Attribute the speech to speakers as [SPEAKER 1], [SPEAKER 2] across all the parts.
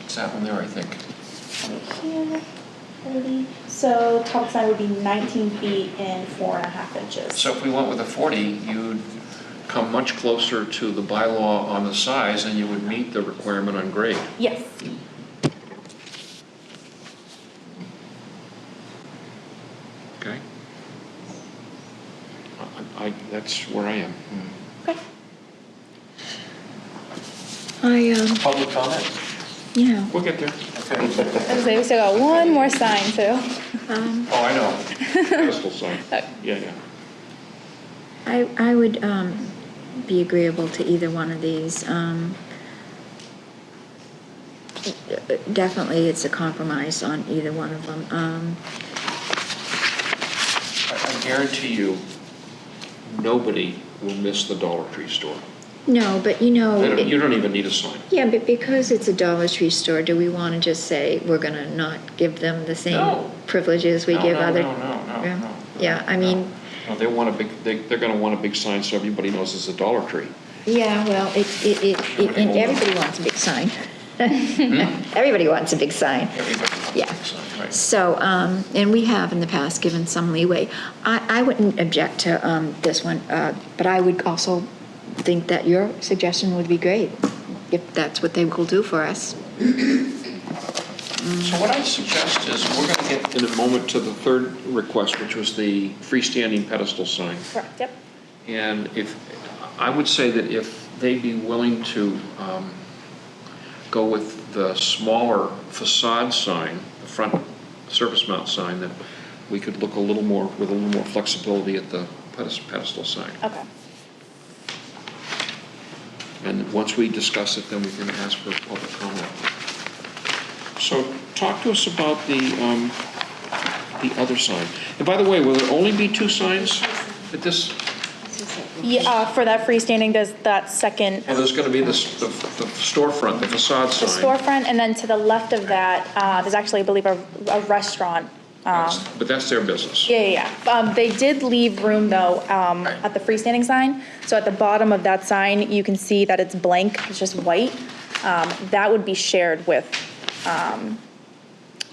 [SPEAKER 1] It's that one there, I think.
[SPEAKER 2] Right here, thirty, so top sign would be nineteen feet and four and a half inches.
[SPEAKER 1] So if we went with a 40, you'd come much closer to the bylaw on the size, and you would meet the requirement on grade.
[SPEAKER 2] Yes,
[SPEAKER 1] Okay. I, I- that's where I am.
[SPEAKER 2] okay.
[SPEAKER 3] I, um,
[SPEAKER 4] Public comment?
[SPEAKER 3] yeah,
[SPEAKER 1] We'll get there.
[SPEAKER 4] Okay.
[SPEAKER 2] I was say, we still got one more sign too.
[SPEAKER 3] um,
[SPEAKER 1] Oh, I know. Crystal sign.
[SPEAKER 4] Uh,
[SPEAKER 1] Yeah, yeah.
[SPEAKER 3] I, I would, um, be agreeable to either one of these, um. Definitely, it's a compromise on either one of them, um,
[SPEAKER 1] I I guarantee you, nobody will miss the Dollar Tree store.
[SPEAKER 3] no, but you know.
[SPEAKER 1] They don't-
[SPEAKER 3] Oh, it-
[SPEAKER 1] You don't even need a sign.
[SPEAKER 3] Yeah, but because it's a Dollar Tree store, do we want to just say we're going to not give them
[SPEAKER 1] No.
[SPEAKER 3] the same privileges we
[SPEAKER 1] No,
[SPEAKER 3] give
[SPEAKER 1] no,
[SPEAKER 3] other?
[SPEAKER 1] No, no, no,
[SPEAKER 3] Yeah.
[SPEAKER 1] no.
[SPEAKER 3] Yeah, I mean,
[SPEAKER 1] No, they want a big, they, they're gonna want a big sign so everybody knows it's a Dollar Tree.
[SPEAKER 3] yeah, well, it, it, it, it- and everybody wants a big sign. Everybody wants a big sign.
[SPEAKER 1] Everybody wants a
[SPEAKER 3] Yeah.
[SPEAKER 1] big sign, right.
[SPEAKER 3] So, um, and we have in the past given some leeway. I, I wouldn't object to, um, this one, uh, but I would also think that your suggestion would be great, if that's what they will do for us.
[SPEAKER 1] So what I suggest is, we're gonna get in a moment to the third request, which was the freestanding pedestal sign.
[SPEAKER 2] Correct, yep.
[SPEAKER 1] And if, I would say that if they'd be willing to um, go with the smaller facade sign, the front surface mount sign, that we could look a little more, with a little more flexibility at the pedes- pedestal sign.
[SPEAKER 2] Okay,
[SPEAKER 1] And once we discuss it, then we can ask for public comment. So talk to us about the, um, the other sign. And by the way, will there only be two signs at this?
[SPEAKER 2] yeah, uh, for that freestanding, there's that second
[SPEAKER 1] Well, there's going to be the s- the f- the storefront, the facade
[SPEAKER 2] The
[SPEAKER 1] sign.
[SPEAKER 2] storefront, and then to the left of that, uh, there's actually, I believe, a, a restaurant. Um,
[SPEAKER 1] That's- But that's their business.
[SPEAKER 2] yeah, yeah, yeah. Um, they did leave room though, um,
[SPEAKER 1] Right.
[SPEAKER 2] at the freestanding sign. So at the bottom of that sign, you can see that it's blank, it's just white. Um, that would be shared with, um,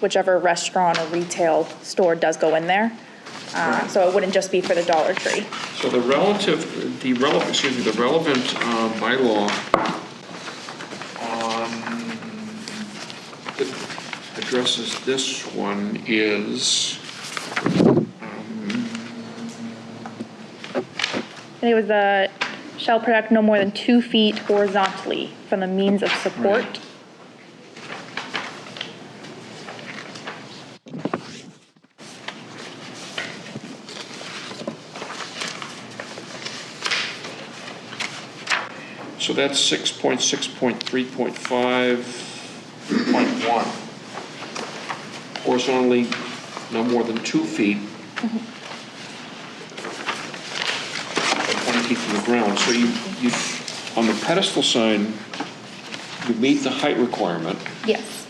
[SPEAKER 2] whichever restaurant or retail store does go in there. Uh, so it wouldn't just be for the Dollar Tree.
[SPEAKER 1] So the relative, the relevant, excuse me, the relevant uh, bylaw um, that addresses this one is,
[SPEAKER 2] And it was the, shall project no more than two feet horizontally from the means of support.
[SPEAKER 1] Right. so that's 6.6.3.5.1. Horizontally, no more than two feet. Or 20 feet from the ground. So you, you, on the pedestal sign, you meet the height requirement,
[SPEAKER 2] Yes.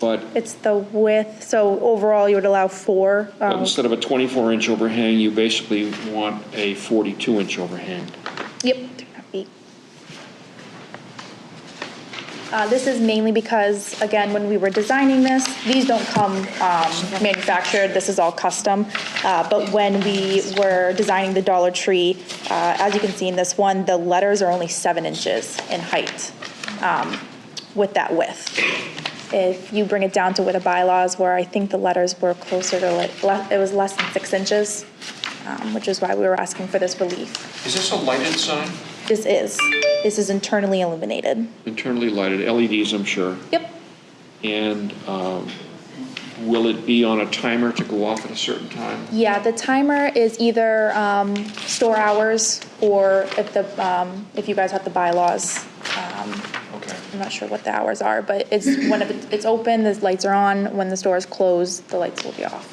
[SPEAKER 1] but
[SPEAKER 2] It's the width, so overall you would allow four.
[SPEAKER 1] But
[SPEAKER 2] um,
[SPEAKER 1] Instead of a 24-inch overhang, you basically want a 42-inch overhang.
[SPEAKER 2] Yep, three and a half feet. Uh, This is mainly because, again, when we were designing this, these don't come um, manufactured, this is all custom. Uh, But when we were designing the Dollar Tree, uh, as you can see in this one, the letters are only seven inches in height um, with that width. If you bring it down to with the bylaws, where I think the letters were closer to like, le- it was less than six inches, um, which is why we were asking for this relief.
[SPEAKER 1] Is this a lighted sign?
[SPEAKER 2] This is, this is internally illuminated.
[SPEAKER 1] Internally lighted, LEDs, I'm sure.
[SPEAKER 2] Yep.
[SPEAKER 1] And um, will it be on a timer to go off at a certain time?
[SPEAKER 2] Yeah, the timer is either um, store hours or if the, um, if you guys have the bylaws, um,
[SPEAKER 1] Okay.
[SPEAKER 2] I'm not sure what the hours are, but it's when it- it's open, the lights are on. When the store is closed, the lights will be off.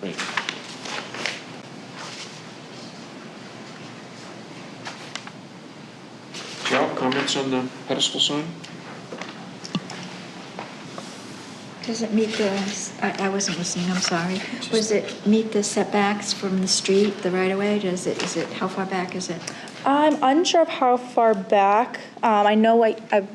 [SPEAKER 1] Great. Joe, comments on the pedestal sign?
[SPEAKER 3] Does it meet the, I, I wasn't listening, I'm sorry. Was it meet the setbacks from the street, the right-of-way? Does it, is it, how far back is it?
[SPEAKER 2] I'm unsure of how far back. Um, I know I, I